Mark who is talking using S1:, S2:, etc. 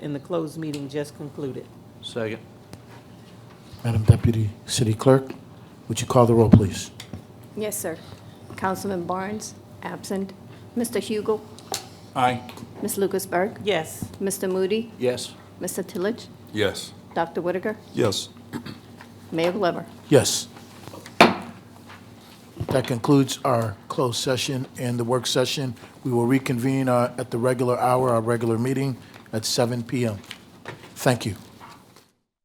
S1: in the closed meeting just concluded.
S2: Second.
S3: Madam Deputy City Clerk, would you call the roll, please?
S4: Yes, sir. Councilman Barnes, absent. Mr. Hugel,
S2: Aye.
S4: Ms. Lucasberg,
S1: Yes,
S4: Mr. Moody,
S2: Yes.
S4: Mr. Tillage,
S5: Yes.
S4: Dr. Whitaker,
S5: Yes.
S4: Mayor Glover.
S3: Yes. That concludes our closed session and the work session. We will reconvene uh, at the regular hour, our regular meeting at 7 PM. Thank you.